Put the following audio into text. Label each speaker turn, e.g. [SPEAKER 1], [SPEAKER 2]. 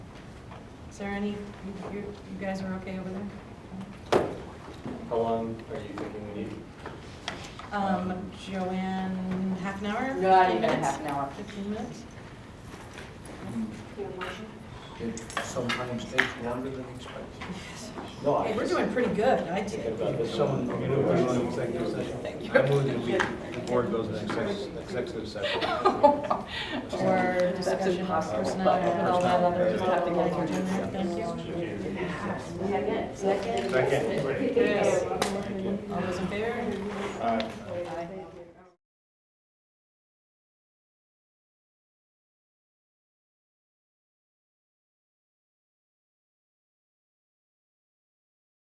[SPEAKER 1] there any, you, you you guys are okay over there?
[SPEAKER 2] How long are you thinking we need?
[SPEAKER 1] Um, Joanne, half an hour?
[SPEAKER 3] Not
[SPEAKER 1] 15
[SPEAKER 3] even a
[SPEAKER 1] minutes?
[SPEAKER 3] half an hour.
[SPEAKER 1] Fifteen minutes?
[SPEAKER 4] It sometimes takes longer than expected.
[SPEAKER 1] Yes.
[SPEAKER 2] No,
[SPEAKER 1] Hey, we're doing pretty good, I
[SPEAKER 2] Thinking
[SPEAKER 1] do.
[SPEAKER 2] about this.
[SPEAKER 5] Someone,
[SPEAKER 2] one.
[SPEAKER 5] you know, we're on executive session. I move that we, the board goes in exec- executive session.
[SPEAKER 1] Or discussion of
[SPEAKER 3] impossible,
[SPEAKER 1] personnel,
[SPEAKER 3] but-
[SPEAKER 1] with all that other
[SPEAKER 3] Just have to go
[SPEAKER 1] language in there.
[SPEAKER 3] through.
[SPEAKER 1] Thank you.
[SPEAKER 3] Second.
[SPEAKER 1] All those in favor?